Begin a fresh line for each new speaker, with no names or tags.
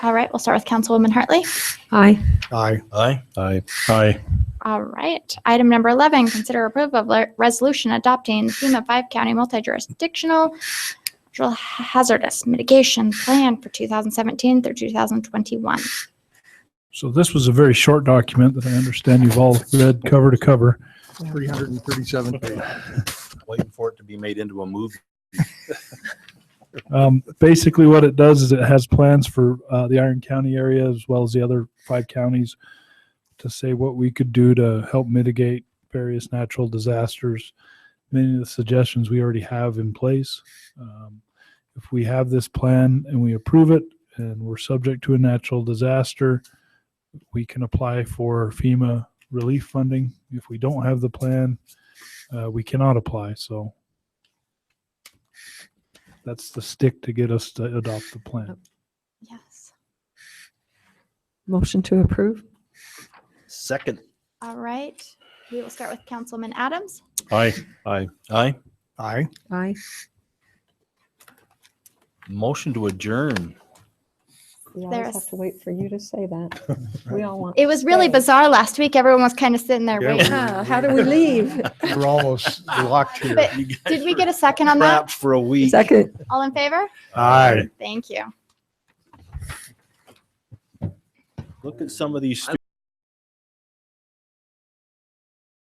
All right, we'll start with Councilwoman Hartley.
Aye.
Aye.
Aye.
Aye. Aye.
All right, item number 11, consider approve of le- resolution adopting FEMA five-county multi-jurisdictional natural hazardous mitigation plan for 2017 through 2021.
So this was a very short document that I understand you've all read cover to cover.
337 pages.
Waiting for it to be made into a movie.
Um, basically, what it does is it has plans for uh, the Iron County area as well as the other five counties to say what we could do to help mitigate various natural disasters. Many of the suggestions we already have in place. Um, if we have this plan and we approve it and we're subject to a natural disaster, we can apply for FEMA relief funding. If we don't have the plan, uh, we cannot apply. So that's the stick to get us to adopt the plan.
Yes.
Motion to approve?
Second.
All right, we will start with Councilman Adams.
Aye.
Aye. Aye.
Aye.
Aye.
Motion to adjourn.
We
There's-
always have to wait for you to say that. We all want.
It was really
Thanks.
bizarre last week. Everyone was kind of sitting there
Yeah,
waiting.
Ah, How do we leave?
We're almost locked here.
But Did we get a second on that?
for a week.
Second.
All in favor?
Aye.
Thank you.
Look at some of these